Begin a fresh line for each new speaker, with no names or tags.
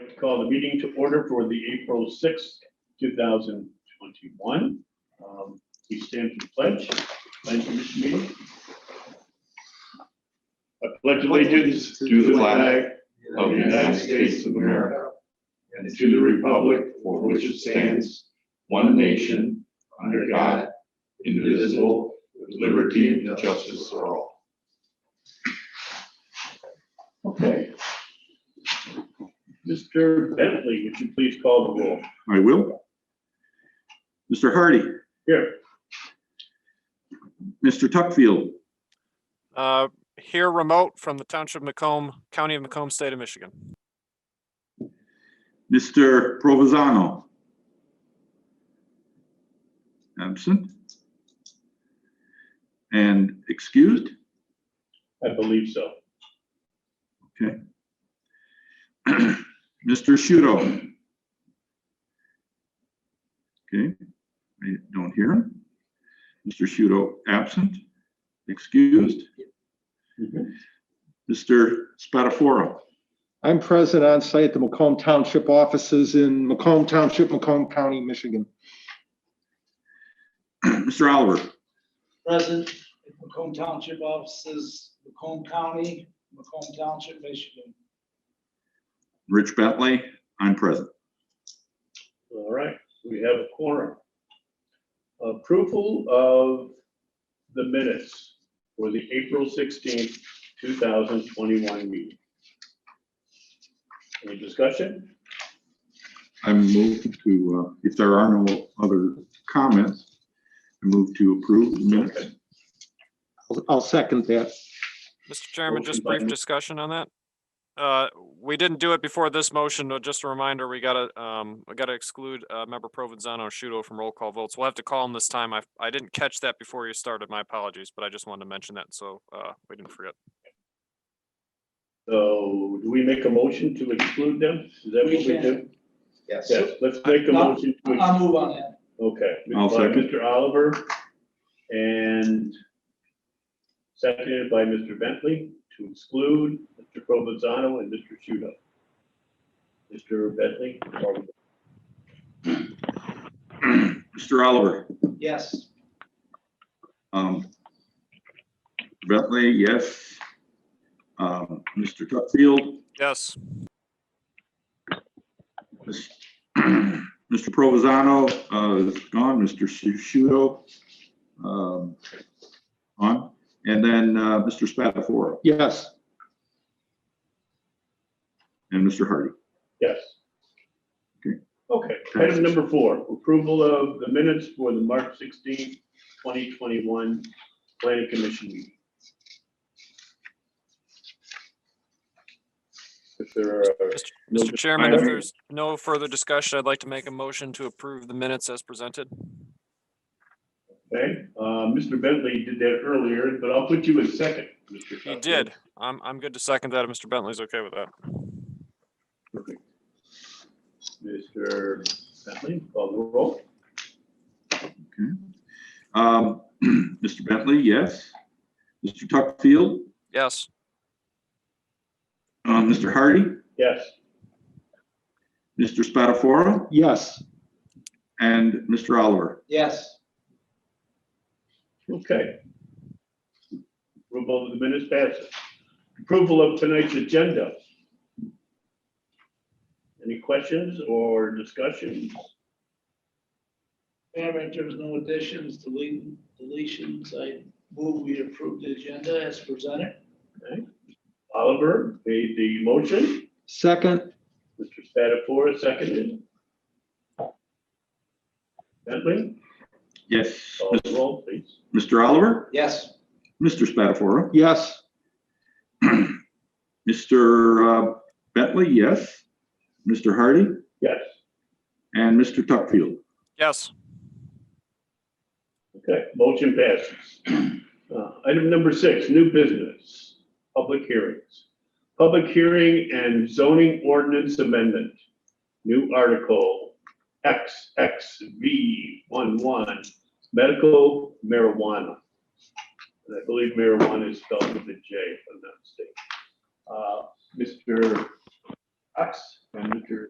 like to call the meeting to order for the April sixth, two thousand twenty-one. Um, We stand to pledge, pledge of this meeting. I pledge allegiance to the flag of the United States of America and to the republic for which it stands, one nation, under God, indivisible, with liberty and justice for all. Okay. Mr. Bentley, would you please call the roll?
I will. Mr. Hardy,
Here.
Mr. Tuckfield,
Uh, Here remote from the Township of Macomb, County of Macomb, State of Michigan.
Mr. Provazano. Absent. And excused.
I believe so.
Mr. Shudo. Okay, I don't hear him. Mr. Shudo, absent, excused. Mr. Spatafora.
I'm present on site at the Macomb Township offices in Macomb Township, Macomb County, Michigan.
Mr. Oliver.
Present at Macomb Township offices, Macomb County, Macomb Township, Michigan.
Rich Bentley, I'm present.
All right, we have a quorum. Approval of the minutes for the April sixteenth, two thousand twenty-one meeting. Any discussion?
I move to, uh, if there are no other comments, I move to approve the minutes.
I'll- I'll second that.
Mr. Chairman,
Motion
just
by
brief
Ms.
discussion on that. Uh, We didn't do it before this motion, but just a reminder, we gotta, um, we gotta exclude uh, member Provenzano and Shudo from roll call votes. We'll have to call him this time. I, I didn't catch that before you started. My apologies, but I just wanted to mention that, so uh, we didn't forget.
So do we make a motion to exclude them? Is that what we
We can.
do? Yes, let's make a
No,
motion to, ex-
I'll move on that.
okay.
I'll
by
second.
Mr. Oliver and seconded by Mr. Bentley to exclude Mr. Provenzano and Mr. Shudo. Mr. Bentley, are we
Mr. Oliver,
Yes,
um, Bentley, yes. Um, Mr. Tuckfield,
Yes,
Miss- Mr. Provazano, uh, is gone, Mr. Shu- Shudo, um, on, and then, uh, Mr. Spatafora
Yes,
and Mr. Hardy.
Yes.
Okay.
Okay, item number four, approval of the minutes for the March sixteenth, twenty twenty-one planning commission meeting. If there are. no
Mr. Chairman, if
discussion-
there's no further discussion, I'd like to make a motion to approve the minutes as presented.
Okay, uh, Mr. Bentley did that earlier, but I'll put you in second. Mr.
He
Tucker.
did. I'm, I'm good to second that if Mr. Bentley's okay with that.
Mr. Bentley, call the roll.
Um, Mr. Bentley, yes. Mr. Tuckfield,
Yes.
uh, Mr. Hardy,
Yes,
Mr. Spatafora,
yes,
and Mr. Oliver.
yes,
okay. Approval of the minutes passes. Approval of tonight's agenda. Any questions or discussion?
Mayor, there's no additions, delete, deletions, I move we approve the agenda as presented.
Oliver made the motion,
second,
Mr. Spatafora seconded. Bentley,
Yes.
call the roll, please.
Mr. Oliver,
Yes,
Mr. Spatafora,
yes,
Mr. uh, Bentley, yes. Mr. Hardy
Yes,
and Mr. Tuckfield.
Yes,
okay, motion passes. Uh, Item number six, new business, public hearings. Public hearing and zoning ordinance amendment. New article XXV one medical marijuana. And I believe marijuana is spelled with a J, if I'm not mistaken. Uh, Mr. expenditure